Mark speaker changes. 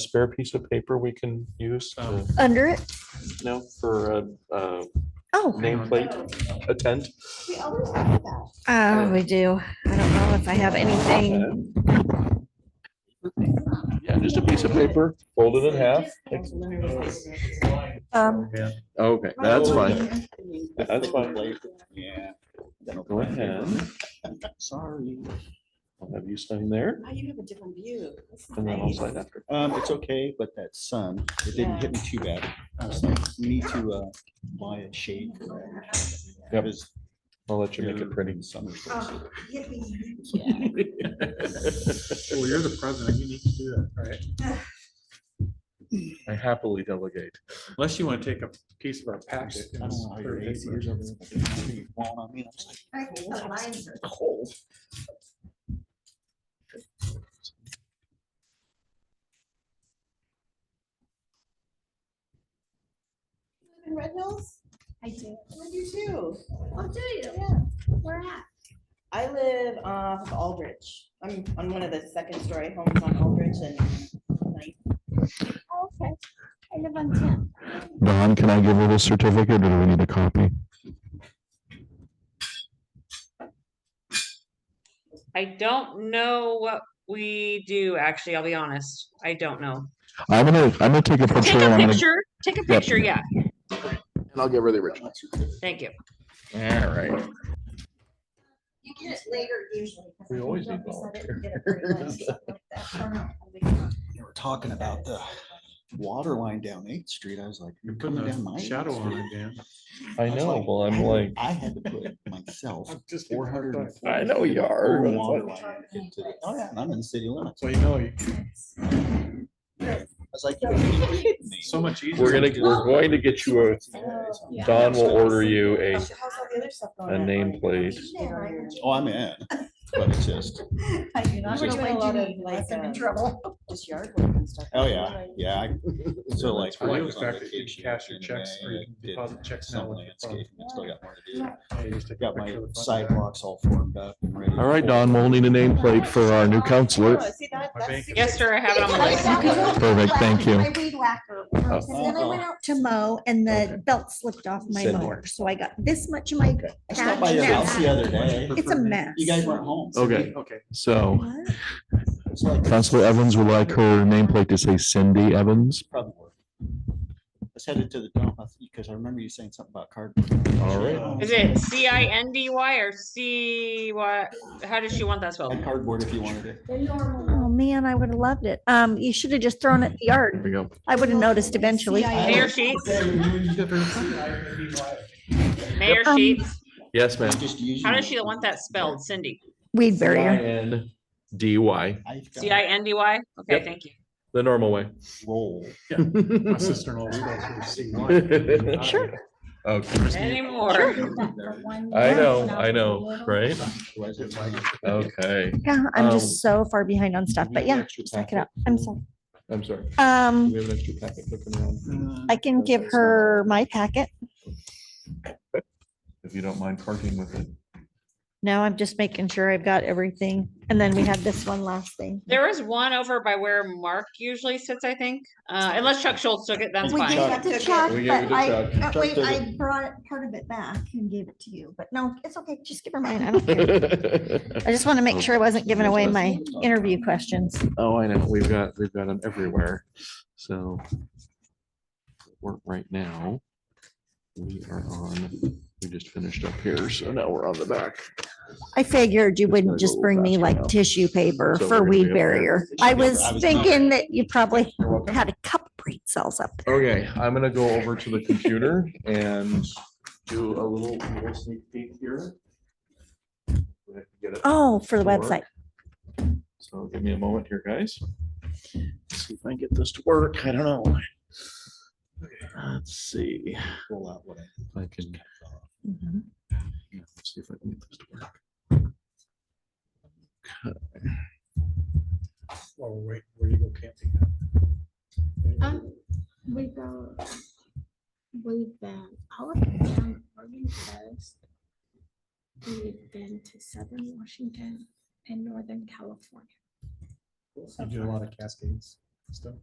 Speaker 1: spare piece of paper we can use, um,
Speaker 2: Under it?
Speaker 1: you know, for a, uh
Speaker 2: Oh,
Speaker 1: nameplate, a tent?
Speaker 2: uh, we do. I don't know if I have anything.
Speaker 1: Yeah, just a piece of paper, folded in half.
Speaker 2: Um,
Speaker 3: Okay, that's fine.
Speaker 1: That's fine.
Speaker 4: Yeah.
Speaker 1: Go ahead.
Speaker 4: Sorry.
Speaker 1: I'll Have you sign there?
Speaker 5: Now you have a different view. That's
Speaker 1: And then I'll
Speaker 5: nice.
Speaker 1: sign after.
Speaker 4: Um, it's okay, but that sun, it didn't hit me too bad. I was like, We need to, uh, buy a shade.
Speaker 1: Yep.
Speaker 4: Because
Speaker 1: I'll let you make
Speaker 4: you're
Speaker 1: it pretty.
Speaker 4: in summer.
Speaker 5: Oh, yippee.
Speaker 6: Well, you're the president, you need to do that, right?
Speaker 1: I happily delegate.
Speaker 6: Unless you want to take a piece of our packet.
Speaker 4: I don't know how your AC is over there, but it's pretty warm. I mean, I'm just like,
Speaker 5: I think the lines are-
Speaker 4: Cold.
Speaker 5: In Red Hills? I do. I do too.
Speaker 7: Oh, do you?
Speaker 5: Yeah.
Speaker 7: Where at?
Speaker 5: I live off of Aldrich. I'm on one of the second story homes on Aldrich and like,
Speaker 7: Oh, okay. I live on ten.
Speaker 3: Don, can I give her the certificate or do we need a copy?
Speaker 8: I don't know what we do, actually, I'll be honest. I don't know.
Speaker 3: I'm gonna, I'm gonna take a picture.
Speaker 8: Take a
Speaker 3: and I'm gonna-
Speaker 8: picture, take a picture, yeah,
Speaker 3: And I'll get rid of original.
Speaker 8: thank you.
Speaker 3: All right.
Speaker 5: You get it later usually. 'cause
Speaker 1: We
Speaker 5: if you
Speaker 1: always
Speaker 5: don't
Speaker 1: need
Speaker 5: decide it, you get it pretty late,
Speaker 1: volunteers.
Speaker 5: something like that. I don't know. I think not.
Speaker 4: You were talking about the water line down Eighth Street. I was like,
Speaker 6: You're
Speaker 4: you're
Speaker 6: putting
Speaker 4: coming down my.
Speaker 6: a
Speaker 4: Eighth
Speaker 6: shadow on
Speaker 4: Street?"
Speaker 6: it, Dan.
Speaker 1: I
Speaker 4: was
Speaker 1: know, well, I'm like,
Speaker 4: I had to put myself
Speaker 6: I'm just-
Speaker 4: four hundred.
Speaker 1: I know you are.
Speaker 4: Oh, yeah, and I'm in the city limits.
Speaker 6: So
Speaker 4: I
Speaker 6: you know, you-
Speaker 4: was like. "You gotta be kidding me."
Speaker 6: so much easier.
Speaker 1: we're gonna, we're going to get you a,
Speaker 5: Yeah.
Speaker 1: Don will order you a,
Speaker 5: How's all the other stuff
Speaker 1: a
Speaker 5: going on?
Speaker 1: nameplate.
Speaker 4: Oh, I'm in, but it's just,
Speaker 5: I do not.
Speaker 4: We're
Speaker 5: We're
Speaker 4: doing
Speaker 5: doing a lot of like,
Speaker 7: I'm in
Speaker 5: um,
Speaker 7: trouble.
Speaker 5: just yard work and stuff.
Speaker 4: oh, yeah, yeah. I- So like.
Speaker 6: I like
Speaker 4: was
Speaker 6: the
Speaker 4: on
Speaker 6: fact that you
Speaker 4: vacation
Speaker 6: can cash your
Speaker 4: in
Speaker 6: checks
Speaker 4: May,
Speaker 6: or you
Speaker 4: I
Speaker 6: can
Speaker 4: did
Speaker 6: deposit checks now
Speaker 4: Some
Speaker 6: with your phone.
Speaker 4: landscaping, and still got more to do.
Speaker 6: Yeah, you just take a
Speaker 4: Got
Speaker 6: picture
Speaker 4: my
Speaker 6: of the front of
Speaker 4: sidewalks all formed up. and ready to
Speaker 3: All right,
Speaker 4: go.
Speaker 3: Don, we'll need a nameplate for our new counselor.
Speaker 5: Oh, see that?
Speaker 6: My
Speaker 5: That's
Speaker 6: bank-
Speaker 5: super-
Speaker 8: Yes, sir, I have it on my list.
Speaker 3: Perfect, thank you.
Speaker 7: I weed whacker.
Speaker 1: Oh.
Speaker 7: first,
Speaker 2: and then I went out to mow and the belt slipped off my
Speaker 4: Send it.
Speaker 2: mower, so I got this much of my
Speaker 4: I
Speaker 2: patch
Speaker 4: stopped by your house the
Speaker 2: now.
Speaker 4: other day.
Speaker 2: It's a mess.
Speaker 4: You guys weren't home. so
Speaker 3: Okay,
Speaker 6: that. Okay,
Speaker 3: so
Speaker 2: What?
Speaker 4: it's like-
Speaker 3: Counselor Evans would like her nameplate to say Cindy Evans.
Speaker 4: Probably. work. Let's head into the dump, because I remember you saying something about cardboard.
Speaker 3: All right.
Speaker 8: Is it C I N D Y or C what, how does she want that
Speaker 4: Had
Speaker 8: spelled?
Speaker 4: Cardboard if you wanted it.
Speaker 2: Oh, man, I would have loved it. Um, you should have just thrown it in the
Speaker 3: There
Speaker 2: yard.
Speaker 3: we go.
Speaker 2: I would have noticed eventually.
Speaker 8: Mayor Sheets, Mayor
Speaker 2: Um,
Speaker 8: Sheets,
Speaker 3: Yes, ma'am.
Speaker 4: Just use
Speaker 8: how
Speaker 4: your-
Speaker 8: does she want that spelled, Cindy?
Speaker 2: Weed barrier.
Speaker 3: N D Y,
Speaker 4: I've got
Speaker 8: C I N D Y? Okay,
Speaker 3: Yep.
Speaker 8: thank you.
Speaker 3: the normal way.
Speaker 4: roll.
Speaker 6: my sister-in-law spells it with C one.
Speaker 2: Sure.
Speaker 3: Okay.
Speaker 8: Anymore.
Speaker 3: I know, I know, right? Okay,
Speaker 2: Yeah, I'm
Speaker 3: Um,
Speaker 2: just so far behind on stuff,
Speaker 3: we
Speaker 2: but
Speaker 3: have
Speaker 2: yeah,
Speaker 3: extra
Speaker 2: check it
Speaker 3: packet?
Speaker 2: out. I'm sorry.
Speaker 3: I'm sorry. Do
Speaker 2: Um,
Speaker 3: We have an extra packet looking around.
Speaker 2: I can give her my packet.
Speaker 3: If you don't mind parking with it.
Speaker 2: No, I'm just making sure I've got everything. And then we had this one last thing.
Speaker 8: There was one over by where Mark usually sits, I think, uh, unless Chuck Schultz took it, that's
Speaker 7: We gave
Speaker 8: fine.
Speaker 7: it to Chuck,
Speaker 3: We
Speaker 7: but
Speaker 3: gave it to
Speaker 7: I,
Speaker 3: Chuck.
Speaker 7: uh, wait,
Speaker 4: Chuck took
Speaker 7: I brought it- part of it back and gave it to you, but
Speaker 2: No, it's okay. Just give her mine. I don't care. I just want to make sure I wasn't giving away my interview questions.
Speaker 3: Oh, I know. We've got, we've got them everywhere. So work right now. We are on, we just finished up here, so now we're on the back.
Speaker 2: I figured you
Speaker 3: Just gotta
Speaker 2: wouldn't
Speaker 3: go a
Speaker 2: just
Speaker 3: little
Speaker 2: bring me
Speaker 3: faster
Speaker 2: like
Speaker 3: now.
Speaker 2: tissue paper
Speaker 3: So we're
Speaker 2: for
Speaker 3: gonna be
Speaker 2: weed
Speaker 3: up there.
Speaker 2: barrier. I was
Speaker 4: I was not-
Speaker 2: thinking that you probably
Speaker 3: You're welcome.
Speaker 2: had a couple brain cells up there.
Speaker 3: Okay, I'm gonna go over to the computer and do a little little sneak peek here. Get it.
Speaker 2: Oh, for the
Speaker 3: Work.
Speaker 2: website.
Speaker 3: So give me a moment here, guys. Let's See if I can get this to work. I don't know. Let's see.
Speaker 4: Roll out what I-
Speaker 3: if I can. Mm-hmm.
Speaker 2: Mhm.
Speaker 3: Yeah, let's See if I can get this to work.
Speaker 6: While we're waiting, where you go camping.
Speaker 7: Um, we go. We've been all up and down Oregon coast. We've been to southern Washington and northern California.
Speaker 6: You do a lot of cascades and stuff.